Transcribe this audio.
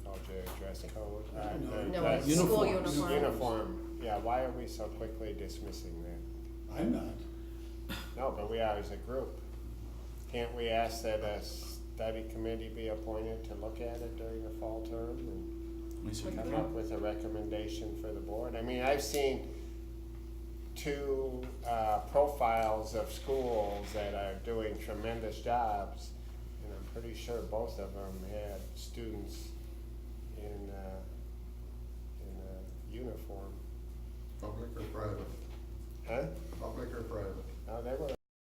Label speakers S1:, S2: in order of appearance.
S1: Oh, dress code, uh, the-
S2: No,
S1: the
S2: it's school
S1: s-
S2: uniforms.
S1: Uniform, yeah, why are we so quickly dismissing that?
S3: I'm not.
S1: No, but we are as a group. Can't we ask that a study committee be appointed to look at it during the fall term and
S4: We should
S1: come up with a recommendation for the board? I mean, I've seen two uh, profiles of schools that are doing tremendous jobs, and I'm pretty sure both of them had uh, s- Oh,